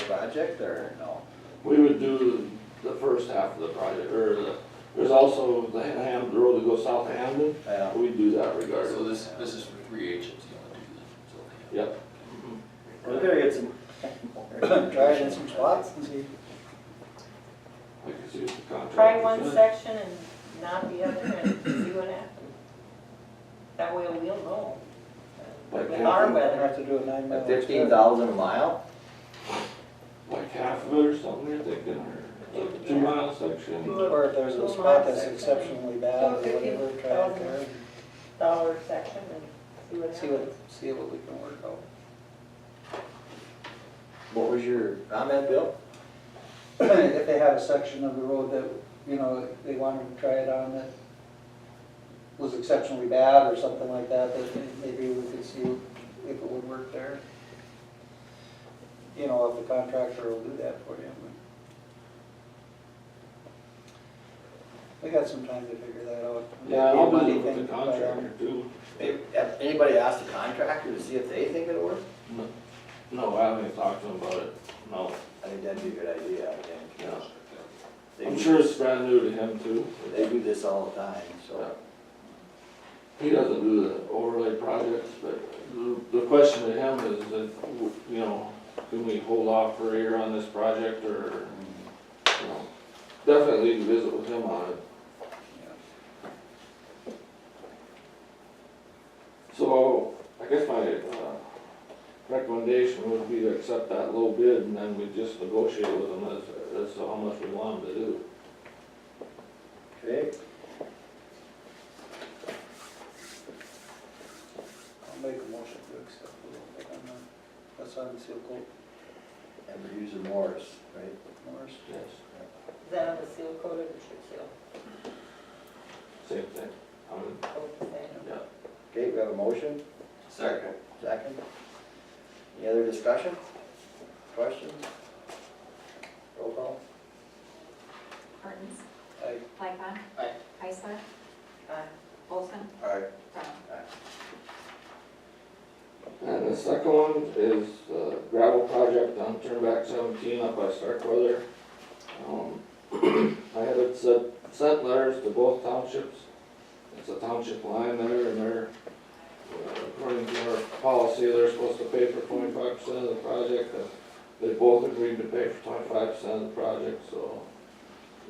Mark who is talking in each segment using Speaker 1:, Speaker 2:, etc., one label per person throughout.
Speaker 1: project or no?
Speaker 2: We would do the first half of the project, or the, there's also the Ham, the road that goes south of Hamden,
Speaker 1: Yeah.
Speaker 3: Um,
Speaker 2: we do that
Speaker 4: So
Speaker 2: regardless.
Speaker 4: this, this is for three agents, you want to do that?
Speaker 2: Yep,
Speaker 5: We're gonna get some.
Speaker 1: Try it in some spots and see.
Speaker 2: I can see what the contract.
Speaker 6: Try
Speaker 2: is.
Speaker 6: one section and not the other and see what happens. That way we'll know.
Speaker 2: Like
Speaker 6: With our
Speaker 2: half,
Speaker 1: We're gonna
Speaker 6: weather,
Speaker 1: have to do a nine mile.
Speaker 3: At fifteen thousand a mile?
Speaker 2: like half of it or something, you're thinking, or like a two mile section.
Speaker 1: Or if there's a spot that's exceptionally bad or whatever, try it there.
Speaker 6: dollar section and see what
Speaker 1: and See
Speaker 6: happens.
Speaker 1: what, see what we can work out.
Speaker 3: What was your comment, Bill?
Speaker 1: If they had a section of the road that, you know, they wanted to try it on that was exceptionally bad or something like that, that maybe we could see if it would work there. You know, if the contractor will do that for you. We got some time to figure that out.
Speaker 2: Yeah, I'll
Speaker 1: Money
Speaker 2: do it with
Speaker 1: thing,
Speaker 2: the
Speaker 1: but, um,
Speaker 2: contractor too.
Speaker 3: Have have anybody asked the contractor to see if they think it'll work?
Speaker 2: No, I haven't even talked to him about it, no,
Speaker 3: I think that'd be a good idea, I think.
Speaker 2: yeah.
Speaker 3: They
Speaker 2: I'm
Speaker 3: do-
Speaker 2: sure it's brand new to him too.
Speaker 3: They do this all the time, so.
Speaker 2: He doesn't do the overlay projects, but the, the question to him is if, you know, can we hold off for a year on this project or, you know, definitely need to visit with him on it. So I guess my, uh, recommendation would be to accept that low bid and then we just negotiate with him as, as to how much we want him to do.
Speaker 3: Okay.
Speaker 1: I'll make a motion to accept the little bit on that. That's on seal coat,
Speaker 3: And we're using Morris, right?
Speaker 1: Morris.
Speaker 2: Yes,
Speaker 6: Is that on the seal coated or should seal?
Speaker 2: same thing. I mean,
Speaker 6: Both the same.
Speaker 2: yeah.
Speaker 3: Okay, we have a motion,
Speaker 4: Second.
Speaker 3: second. Any other discussion? Questions? Roll call?
Speaker 7: Martins,
Speaker 1: Aye.
Speaker 7: Lightcon.
Speaker 4: Aye.
Speaker 7: Heisler,
Speaker 6: Aye.
Speaker 7: Olson,
Speaker 3: Aye.
Speaker 7: Brown.
Speaker 2: And the second one is uh, gravel project on Turnback Seventeen up by Starkweather. Um, I had it sent, sent letters to both townships. It's a township line there and they're, uh, according to our policy, they're supposed to pay for twenty-five percent of the project. and They both agreed to pay for twenty-five percent of the project, so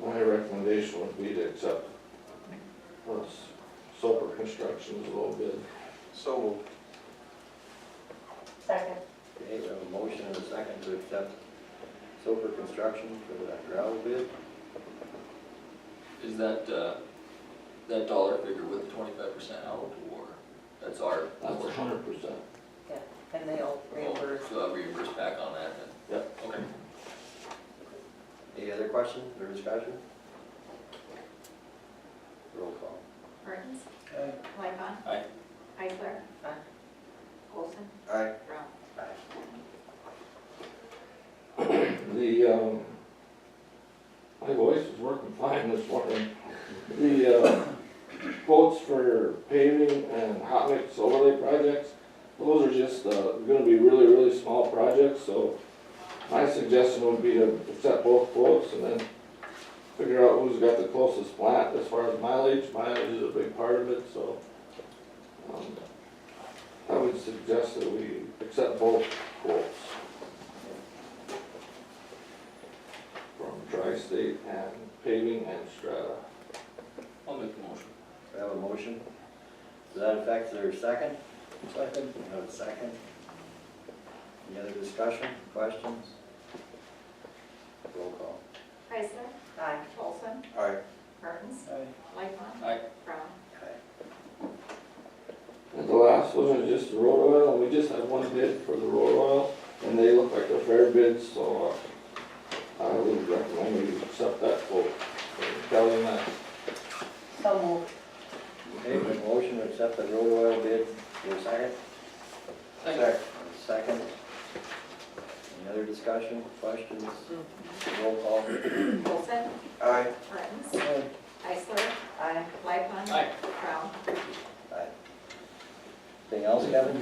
Speaker 2: my recommendation would be to accept uh, Soper Construction's low bid.
Speaker 4: So.
Speaker 6: Second.
Speaker 3: Okay, we have a motion and a second to accept Soper Construction for the gravel bid.
Speaker 4: Is that, uh, that dollar figure with twenty-five percent out or that's our?
Speaker 2: That's a hundred percent.
Speaker 6: And they'll reimburse.
Speaker 4: So I'll reimburse back on that then? Yep. Okay.
Speaker 3: Any other questions or discussion? Roll call.
Speaker 7: Martins,
Speaker 1: Aye.
Speaker 7: Lightcon.
Speaker 4: Aye.
Speaker 7: Heisler.
Speaker 6: Aye.
Speaker 7: Olson,
Speaker 3: Aye.
Speaker 7: Brown.
Speaker 2: The, um, my voice is working fine this morning. The, uh, quotes for paving and hot mix overlay projects, those are just, uh, gonna be really, really small projects, so my suggestion would be to accept both quotes and then figure out who's got the closest plant as far as mileage. Mileage is a big part of it, so, um, I would suggest that we accept both quotes. from Tri-State and Paving and Strata.
Speaker 4: I'll make the motion.
Speaker 3: We have a motion. Does that affect their second?
Speaker 1: Second.
Speaker 3: We have a second. Any other discussion, questions? Roll call.
Speaker 7: Heisler,
Speaker 6: Aye.
Speaker 7: Olson,
Speaker 3: Aye.
Speaker 7: Martins,
Speaker 1: Aye.
Speaker 7: Lightcon.
Speaker 4: Aye.
Speaker 7: Brown.
Speaker 3: Aye.
Speaker 2: And the last one is just the road oil, and we just had one bid for the road oil, and they look like a fair bid, so uh, I would recommend we accept that quote. Kelly, that
Speaker 6: So moved.
Speaker 3: Okay, we have a motion to accept the road oil bid. Your second? Second. Second. Any other discussion, questions? Roll call.
Speaker 7: Olson,
Speaker 3: Aye.
Speaker 7: Martins,
Speaker 1: Aye.
Speaker 7: Heisler. Aye. Lightcon.
Speaker 4: Aye.
Speaker 7: Brown.
Speaker 3: Anything else, Kevin?